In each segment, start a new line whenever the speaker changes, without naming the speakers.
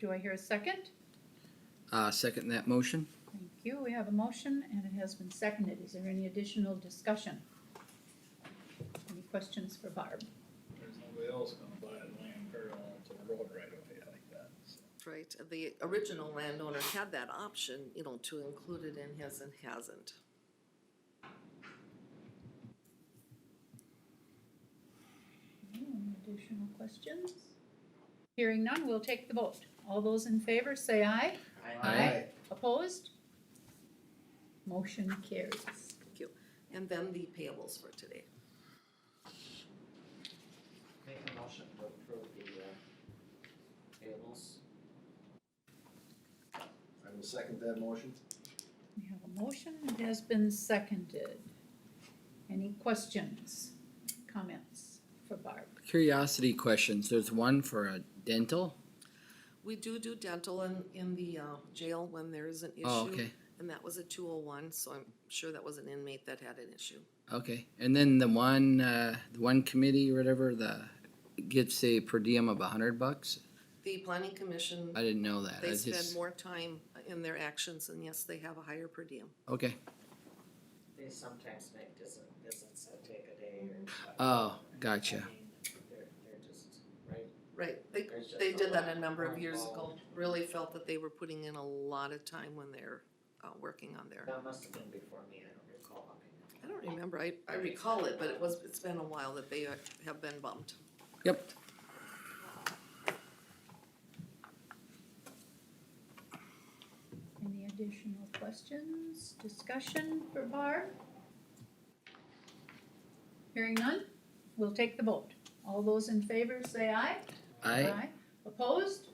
Do I hear a second?
Uh, second that motion.
Thank you. We have a motion and it has been seconded. Is there any additional discussion? Any questions for Barb?
There's nobody else gonna buy the land parallel to the road right away like that, so.
Right, the original landowner had that option, you know, to include it in his and hasn't.
Any additional questions? Hearing none, we'll take the vote. All those in favor, say aye.
Aye.
Opposed? Motion carries.
Thank you. And then the payables for today.
Make a motion to approve the uh, payables.
I will second that motion.
We have a motion that has been seconded. Any questions, comments for Barb?
Curiosity questions. There's one for a dental.
We do do dental in, in the uh, jail when there is an issue.
Oh, okay,
And that was a two oh one, so I'm sure that was an inmate that had an issue.
okay. And then the one, uh, the one committee or whatever, the, gets a per diem of a hundred bucks.
The planning commission,
I didn't know that. I
they spend
just,
more time in their actions, and yes, they have a higher per diem.
okay.
They sometimes make visit, visits that take a day or. whatever.
Oh,
I
gotcha.
mean, They're, they're just, right?
Right, they,
There's just
they
a
did that
lot
a number of
more
years ago,
involved.
really felt that they were putting in a lot of time when they're, uh, working on their,
That must have been before me, I don't recall. I mean,
I don't remember, I, I recall it, but it was, it's been a while that they uh, have been bumped.
Yep.
Any additional questions, discussion for Barb? Hearing none, we'll take the vote. All those in favor say aye.
I,
Opposed?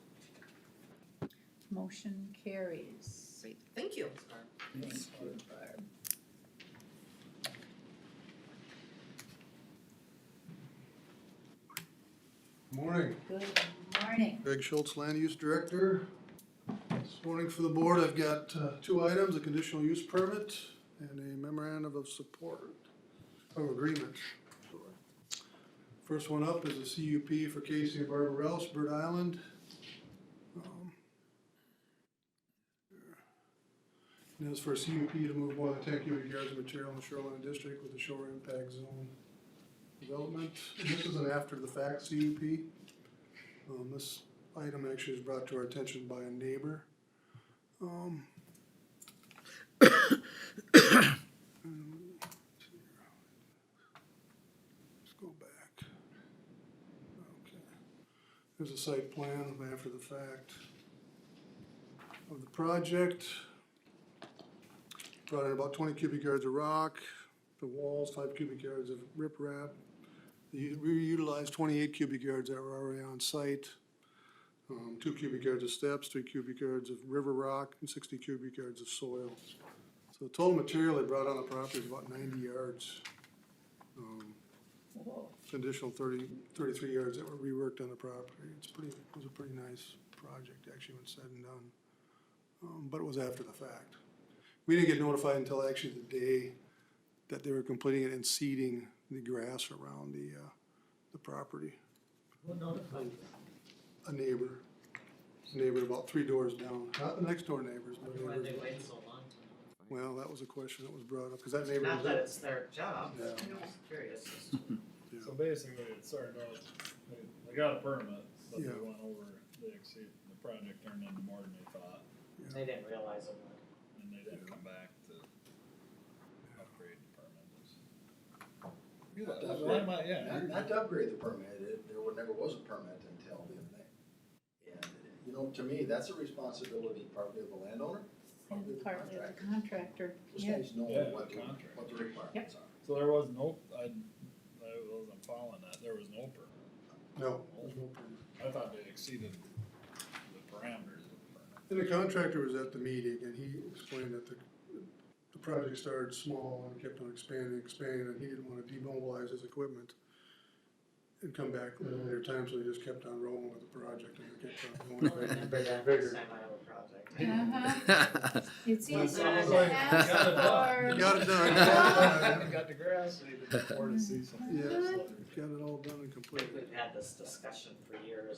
Motion carries.
Great, thank you.
Thank you, Barb.
Morning,
Good morning.
Greg Schultz, Land Use Director. This morning for the board, I've got uh, two items, a conditional use permit and a memorandum of support, of agreement. sorry. First one up is a CUP for Casey and Barbara Rouse, Bird Island. Um, And it's for a CUP to move one of the ten cubic yards of material in the shoreline district with the shore impact zone development. This is an after-the-fact CUP. Um, this item actually was brought to our attention by a neighbor. Um. Let's go back. Okay. There's a site plan after the fact of the project. Brought in about twenty cubic yards of rock, the walls, five cubic yards of riprap, you- We utilized twenty-eight cubic yards that were already on site. Um, two cubic yards of steps, three cubic yards of river rock, and sixty cubic yards of soil. So the total material they brought on the property is about ninety yards. Um,
Whoa,
additional 30 33 yards that were reworked on the property. It's pretty, it was a pretty nice project, actually, when said and done. Um, but it was after the fact. We didn't get notified until actually the day that they were completing it and seeding the grass around the, uh, the property.
Who notified you?
A neighbor, neighbor about three doors down, not the next door neighbors, but
Why they
neighbors.
wait so long to
Well, that was a question that was brought up, because that neighbor
notify? Not that
was,
it's their job, but
Yeah.
I'm just curious as to.
Yeah.
So basically, it started out, they, they got a permit, but they
Yeah.
went over, they exceeded, the project turned into more than they thought,
They didn't realize it.
and they didn't come back to upgrade the permit.
Not to
Why
upgrade-
am I- yeah,
Not not to upgrade the permit, it, there were, never was a permit until the other day. And, you know, to me, that's a responsibility partly of the landowner, partly of
and
the
partly the
contractor.
contractor,
Just
yeah.
guys know
Yeah,
what the,
the contractor.
what the requirements are.
so there was no, I, I wasn't following that, there was no permit.
no, there's no permit.
I thought they exceeded the parameters of the permit.
And the contractor was at the meeting and he explained that the, the project started small and kept on expanding, expanding, and he didn't wanna demobilize his equipment and come back at
Mm-hmm.
a later time, so he just kept on rolling with the project and it kept on
I'll
going.
remember that next
Bigger.
time I have a project.
Uh-huh. It's
Well,
easier
sounds
to
like-
ask
Got
for.
it done.
Got it
I
done.
Got the grass, they didn't afford to see some.
Yeah.
Yeah.
Got it all done and completed.
We've had this discussion for years,